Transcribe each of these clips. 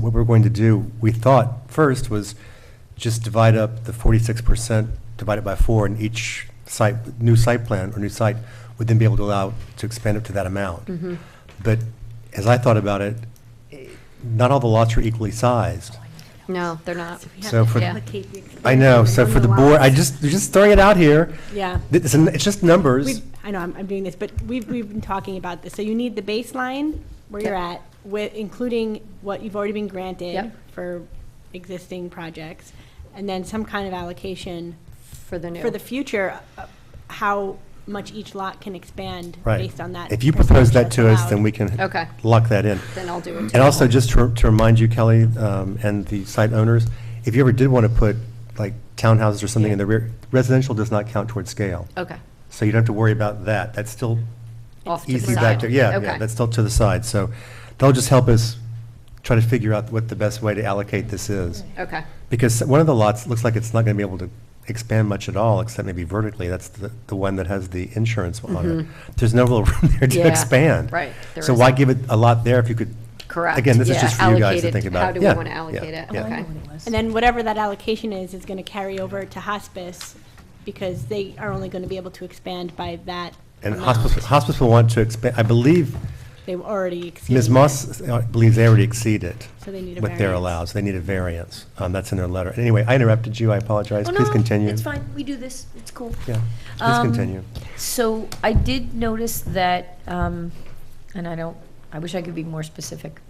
what we're going to do, we thought first was just divide up the forty-six percent, divide it by four, and each site, new site plan or new site would then be able to allow to expand up to that amount. Mm-hmm. But as I thought about it, eh, not all the lots are equally sized. No, they're not. So for, Yeah. I know, so for the board, I just, just throwing it out here, Yeah. it's, an- it's just numbers. We've- I know, I'm, I'm doing this, but we've, we've been talking about this. So you need the baseline where you're at, with, including what you've already been granted Yep. for existing projects, and then some kind of allocation For the new. for the future, uh, how much each lot can expand Right. based on that. If you propose that percentage to us, that's then allowed. we can Okay. lock that in. Then I'll do it. And also, just to to remind you, Kelly, um, and the site owners, if you ever did want to put, like, townhouses or something in the rear, residential does not count towards scale. Okay. So you don't have to worry about that. That's still Off to the easy back side. to, yeah, yeah, Okay. that's still to the side. So that'll just help us try to figure out what the best way to allocate this is. Okay. Because one of the lots looks like it's not going to be able to expand much at all, except maybe vertically. That's the, the one that has the insurance on it. There's no real room there to Mm-hmm. Yeah, expand. right, there So why isn't. give it a lot there if you could? Correct, Again, this is yeah, just for you guys to allocated, think about. how do we Yeah, wanna yeah, allocate it? yeah. Okay. And then whatever that allocation is, is gonna carry over to hospice, because they are only gonna be able to expand by that And amount. hospice, hospice will want to expand, I believe They've already exceeded. Ms. that. Moss uh, believes they already exceed it. So they need a What they're variance. allowed, so they need a variance. Um, That's in their letter. Anyway, I interrupted you, I apologize. Oh, Please no, continue. It's fine, we do this, it's cool. Yeah, please Um, continue. So I did notice that, um, and I don't, I wish I could be more specific,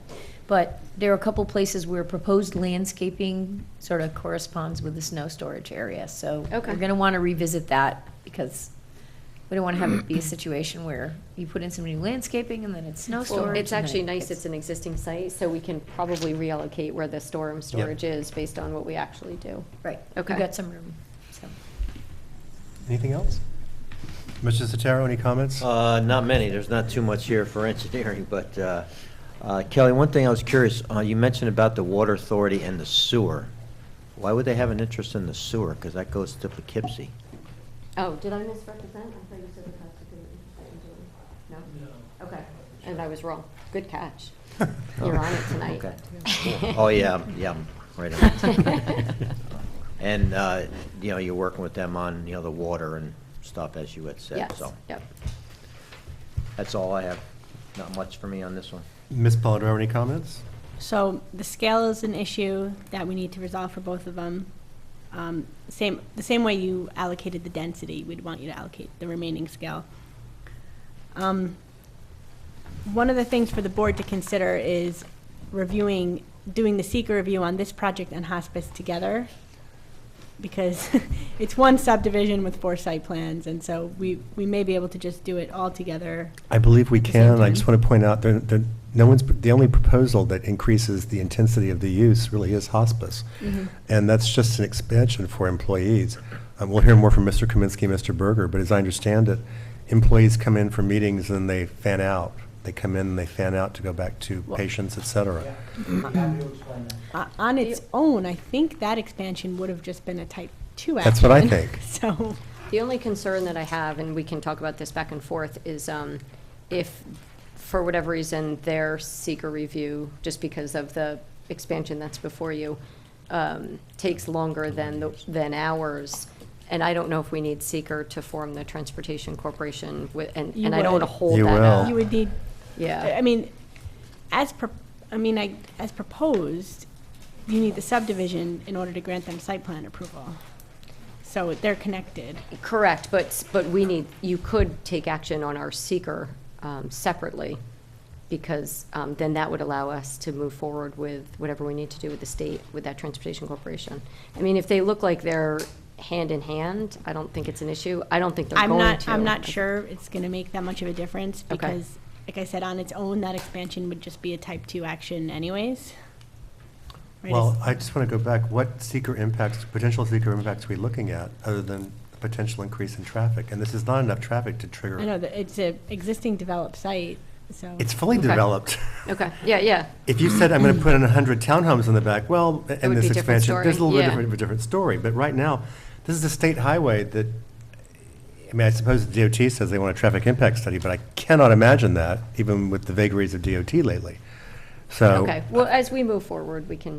but there are a couple places where proposed landscaping sort of corresponds with the snow storage area, so Okay. we're gonna want to revisit that, because we don't want to have it be a situation where you put in some new landscaping and then it's snow storage. Well, it's and then actually it nice, gets- it's an existing site, so we can probably reallocate where the storm storage is based on what we actually do. Right, we Okay. got some room, so. Anything else? Mr. Sotero, any comments? Uh, Not many, there's not too much here for engineering, but uh, uh, Kelly, one thing I was curious, uh, you mentioned about the water authority and the sewer. Why would they have an interest in the sewer? Because that goes to Poughkeepsie. Oh, did I misrepresent? I thought you said the cops were gonna be- No? Okay, and I was wrong. Good catch. You're on it tonight. Oh. Okay. Oh, yeah, I'm- yeah, I'm right on it. And, uh, you know, you're working with them on, you know, the water and stuff, as you had said, Yes, so. yep. That's all I have. Not much for me on this one. Ms. Polidoro, any comments? So the scale is an issue that we need to resolve for both of them. Um, Same, the same way you allocated the density, we'd want you to allocate the remaining scale. Um, One of the things for the board to consider is reviewing, doing the seeker review on this project and hospice together, because it's one subdivision with four site plans, and so we, we may be able to just do it all together. I believe we At the same can. I time. just want to point out, there, there, no one's, the only proposal that increases the intensity of the use really is hospice. Mm-hmm. And that's just an expansion for employees. Um, we'll hear more from Mr. Kaminsky, and Mr. Berger, but as I understand it, employees come in for meetings and they fan out. They come in and they fan out to go back to patients, et cetera. Uh, On its own, I think that expansion would have just been a type two action. That's what I think. So, The only concern that I have, and we can talk about this back and forth, is um, if, for whatever reason, their seeker review, just because of the expansion that's before you, um, takes longer than, the- than ours, and I don't know if we need seeker to form the Transportation Corporation, wi- and, You and I don't want to would. hold You that will. up. you would need, I I Yeah, mean, as, pro- I mean, I, as proposed, you need the subdivision in order to grant them site plan approval. So they're connected. correct, but, s- but we need, you could take action on our seeker um, separately, because um, then that would allow us to move forward with whatever we need to do with the state, with that transportation corporation. I mean, if they look like they're hand in hand, I don't think it's an issue. I don't think they're I'm going to. not, I'm not sure it's gonna make that much of a difference, Okay. because, like I said, on its own, that expansion would just be a type two action anyways. Right, Well, it's- I just want to go back, what seeker impacts, potential seeker impacts are we looking at, other than the potential increase in traffic? And this is not enough traffic to I know, trigger. that it's a existing developed site, so. It's fully Okay. developed. Okay, yeah, yeah, If you said, I'm going to put in 100 townhomes in the back, well, and would be this a different expansion, story, there's a little bit yeah. different- of a different story. But right now, this is a state highway that, I mean, I suppose the DOT says they want a traffic impact study, but I cannot imagine that, even with the vagaries of DOT lately. So. Okay, well, as we move forward, we can